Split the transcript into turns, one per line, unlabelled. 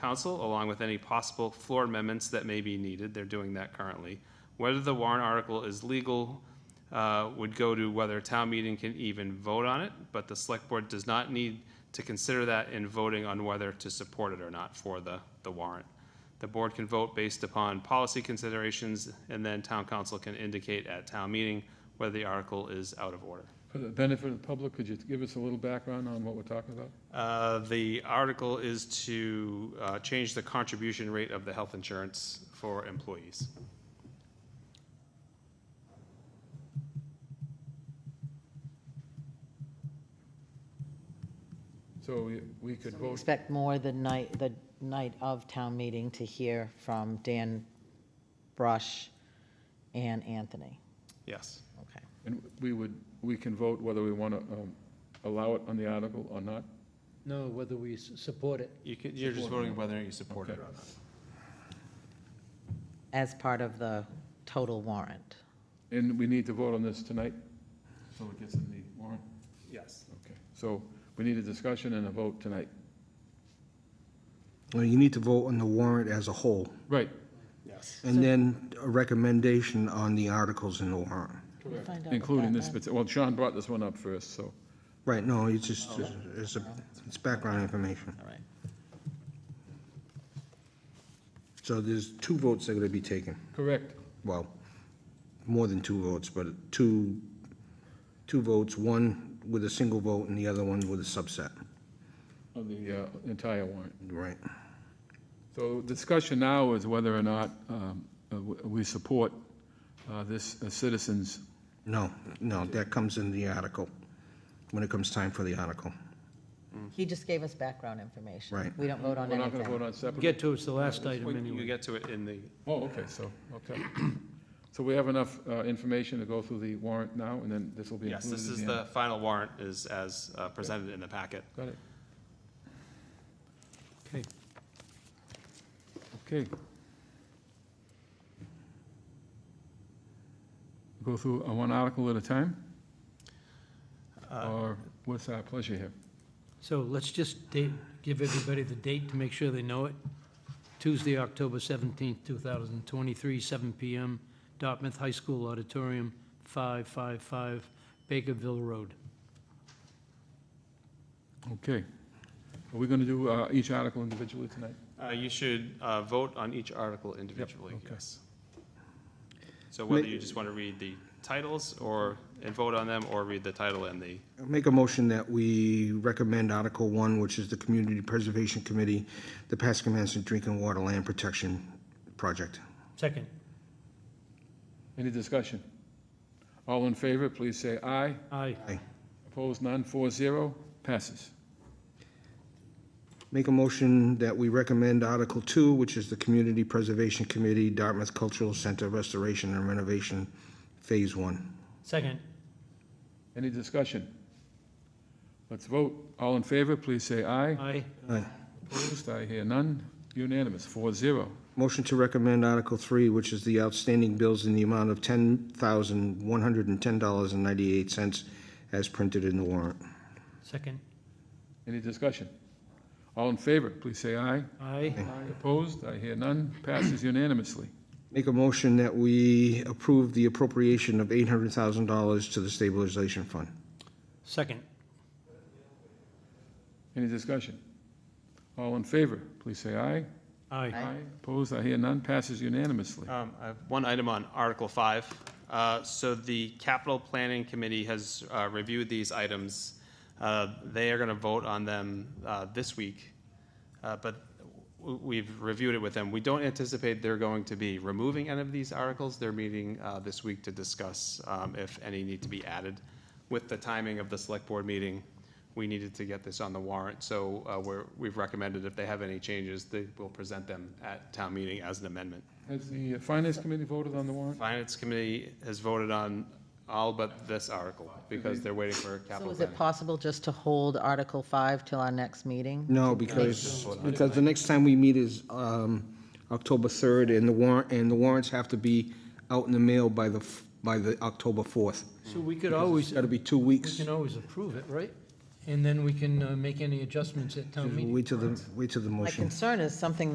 council, along with any possible floor amendments that may be needed. They're doing that currently. Whether the warrant article is legal uh, would go to whether town meeting can even vote on it, but the select board does not need to consider that in voting on whether to support it or not for the, the warrant. The board can vote based upon policy considerations, and then town council can indicate at town meeting whether the article is out of order.
For the benefit of the public, could you give us a little background on what we're talking about?
Uh, The article is to uh, change the contribution rate of the health insurance for employees.
So we- we could
We
vote,
Expect more the night, the night of town meeting to hear from Dan Brush and Anthony.
Yes.
Okay.
and we would, we can vote whether we want to allow it on the article or not?
No, whether we s- support it.
You can, you're just voting whether you support it or
Okay.
not.
As part of the total warrant.
And we need to vote on this tonight? So it gets in the warrant?
Yes.
Okay. So we need a discussion and a vote tonight.
Well, you need to vote on the warrant as a whole,
Right.
Yes.
and then a recommendation on the articles in the warrant.
We'll find out what
Including
that
this,
meant.
parti- well, Sean brought this one up first, so.
Right, no, it's just, it's, a- it's background information.
Oh, All right.
So there's two votes that are gonna be taken.
Correct.
Well, more than two votes, but two, two votes, one with a single vote and the other one with a subset.
Of the uh, entire warrant.
Right.
So discussion now is whether or not um, uh, w- we support uh, this uh, citizens'
No, no, that comes in the article, when it comes time for the article.
He just gave us background information.
Right.
We don't vote on
We're not going to vote
anything.
on separate?
Get to, it's the last item
When you
anyway.
get to it in the,
Oh, okay, so, okay. So we have enough uh, information to go through the warrant now, and then this will be
yes,
included?
this
in
is
the
the
end?
final warrant is as uh, presented in the packet.
Got it,
Okay.
okay. Go through uh, one article at a time?
Uh,
Or what's our pleasure here?
So let's just date, give everybody the date to make sure they know it. Tuesday, October 17th, 2023, 7 PM, Dartmouth High School Auditorium, 555 Bakerville Road.
Okay. Are we going to do uh, each article individually tonight?
Uh, You should uh, vote on each article individually,
okay.
yes. So whether you just want to read the titles or, and vote on them, or read the title and the,
Make a motion that we recommend Article One, which is the Community Preservation Committee, the Pascomanson Drinking Water Land Protection Project.
Second.
Any discussion? All in favor, please say aye.
Aye.
Opposed, none, four zero, passes.
Make a motion that we recommend Article Two, which is the Community Preservation Committee, Dartmouth Cultural Center Restoration and Renovation, Phase One.
Second.
Any discussion? Let's vote. All in favor, please say aye.
Aye.
Aye.
Opposed, I hear none. Unanimous, four zero.
Motion to recommend Article Three, which is the outstanding bills in the amount of ten thousand, one hundred and ten dollars and ninety-eight cents as printed in the warrant.
Second.
Any discussion? All in favor, please say aye.
Aye.
Opposed, I hear none. Passes unanimously.
Make a motion that we approve the appropriation of $800,000 to the stabilization fund.
Second.
Any discussion? All in favor, please say aye.
Aye.
Opposed, I hear none. Passes unanimously.
Um, I have one item on Article 5. Uh, So the Capital Planning Committee has uh, reviewed these items. Uh, They are going to vote on them uh, this week, uh, but w- we've reviewed it with them. We don't anticipate they're going to be removing any of these articles. They're meeting uh, this week to discuss um, if any need to be added. With the timing of the Select Board meeting, we needed to get this on the warrant, so uh, we're- we've recommended if they have any changes, they will present them at town meeting as an amendment.
Has the Finance Committee voted on the warrant?
Finance Committee has voted on all but this article, because they're waiting for
Mm-hmm. So
capital
is it
planning.
possible just to hold Article 5 till our next meeting?
No, because, because the next time we meet is um, October 3rd, and the warrant, and the warrants have to be out in the mail by the, f- by the October 4th.
So we could
It's
always,
got to be two
we
weeks.
can always approve it, right?
and then we can uh, make any adjustments at town meeting.
Wait till the, wait till the
My
motion.
concern is something